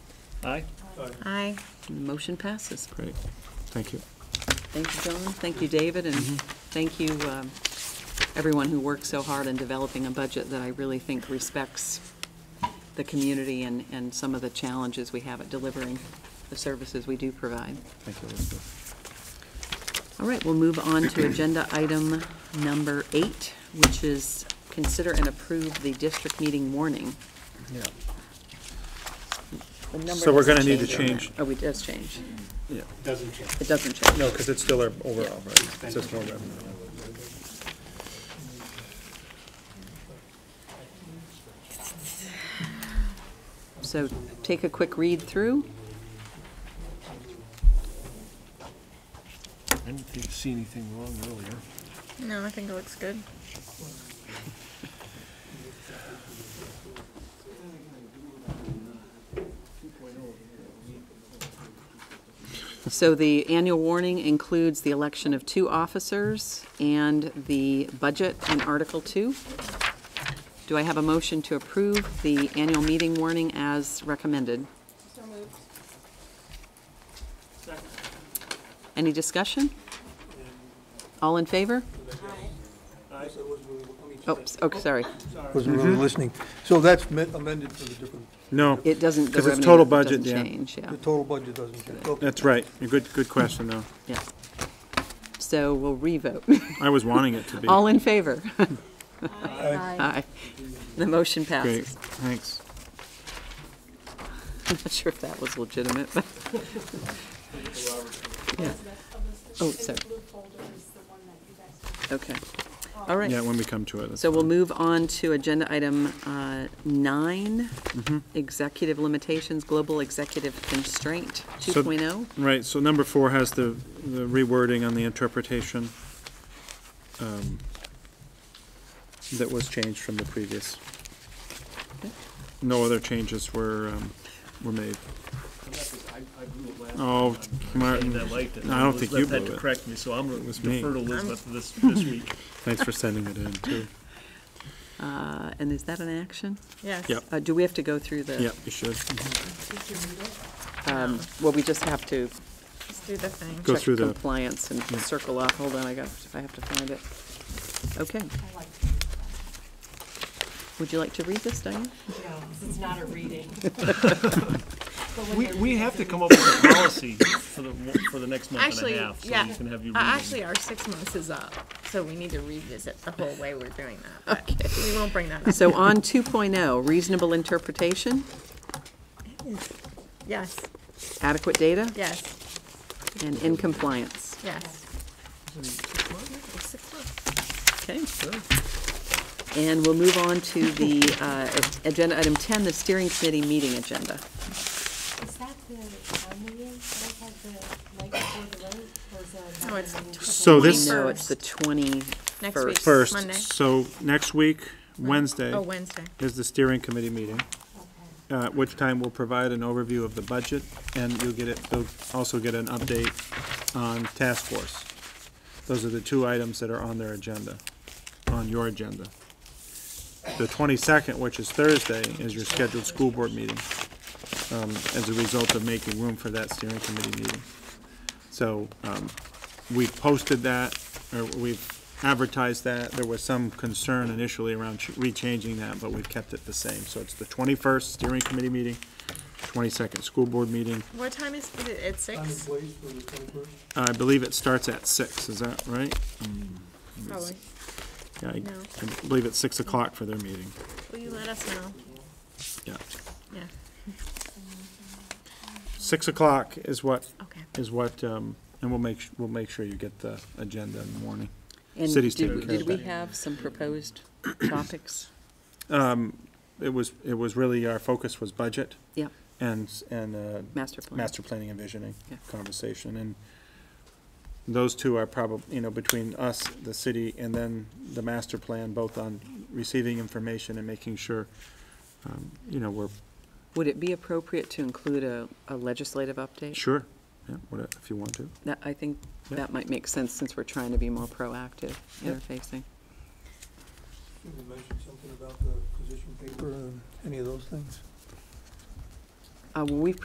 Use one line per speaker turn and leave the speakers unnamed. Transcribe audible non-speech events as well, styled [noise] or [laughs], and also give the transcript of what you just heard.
Aye?
Aye.
Motion passes.
Great, thank you. Mm-hmm.
Thank you, John. Thank you, David, and thank you, um, everyone who worked so hard in developing a budget that I really think respects the community and, and some of the challenges we have at delivering the services we do provide.
Thank you, Elizabeth.
All right, we'll move on to agenda item number eight, which is consider and approve the district meeting warning.
Yeah.
The number
So we're gonna
doesn't
need to
on that.
change-
Oh, we, it does change.
Yeah.
Doesn't change.
It doesn't change.
No, because it's still our overall, right? It's just more revenue.
So take a quick read through.
I didn't think- see anything wrong earlier.
No, I think it looks good.
So the annual warning includes the election of two officers and the budget in Article 2. Do I have a motion to approve the annual meeting warning as recommended?
So moved.
Any discussion? All in favor? Oops, oh, sorry.
wasn't really listening. So that's me- amended for the different,
No,
It doesn't, the
Because it's
revenue
total
doesn't
budget, yeah.
change, yeah.
the total budget doesn't change. Okay.
that's right. A Good, good question, though.
Yeah. So we'll revote.
I was wanting it to be.
All in favor?
Uh,
Aye.
Aye. The motion
Great,
passes.
thanks.
[laughs] I'm not sure if that was legitimate, but. [laughs] Yeah. Oh, sorry. Okay. All right.
Yeah, when we come to it. that's
So we'll
fine.
move on to agenda item uh, nine,
Mm-hmm.
executive limitations, global executive constraint oh.
So-
2.0.
Right, so number four has the the rewording on the interpretation um, that was changed from the previous. No other changes were, um, were made. Oh,
And
Martin,
I liked it.
No, I don't think you
Elizabeth
blew
had
it.
to correct me, so I'm going
was
to
me.
defer to Elizabeth this, this week.
thanks for sending it in, too.
Uh, And is that an action?
Yes.
Yep.
Uh, Do we have to go through the?
Yep, you should.
um, Well, we just have to
Let's do the thing.
Go
check
through the-
compliance and circle off. Hold on, I got, I have to find it. Okay. Would you like to read this, Diane?
No, this is not a reading.
We, we have to come up with a
[laughs]
policy for the, for the next month and
Actually,
a half, so
yeah.
you can have
Uh,
your
Actually,
reading.
our six months is up, so we need to revisit the whole way we're doing that. but We won't bring that up.
So on 2.0, reasonable interpretation,
Yes,
adequate data,
yes,
and in compliance.
yes. Six months.
Okay. And we'll move on to the uh, agenda item 10, the steering committee meeting agenda.
Is that the town meeting that I had the night before the vote, or is that?
No, it's-
another meeting?
So this,
No, it's the 20,
Next week.
first,
Monday.
so next week, Wednesday,
Oh, Wednesday.
is the steering committee meeting. uh, at which time we'll provide an overview of the budget, and you'll get it, you'll also get an update on task force. Those are the two items that are on their agenda, on your agenda. The twenty-second, which is Thursday, is your scheduled school board meeting, um, as a result of making room for that steering committee meeting. So, um, we posted that, or we've advertised that. There was some concern initially around ch- rechanging that, but we've kept it the same. So it's the twenty-first steering committee meeting, twenty-second school board meeting.
What time is is it? At
Time and
six?
place for the 21st?
I believe it starts at six, is that right?
Probably.
Yeah, I-
No.
I believe it's six o'clock for their meeting,
Will you let us know?
yeah.
Yeah,
Six o'clock is what,
okay.
is what, um, and we'll make, we'll make sure you get the agenda in the morning.
and
City's
did-
taking care
Did
of
we
that.
have some
[clears throat]
proposed topics?
It was, it was really, our focus was budget
Yeah,
and, s- and, uh,
master plan.
master planning and visioning
Yeah.
conversation, and those two are probably, you know, between us, the city, and then the master plan, both on receiving information and making sure, um, you know, we're,
Would it be appropriate to include a a legislative update?
sure, yeah, what, if you want to.
That, I think
Yeah.
that might make sense since we're trying to be more proactive interfacing.
Should we mention something about the position paper and any of those things?
Uh, well, We've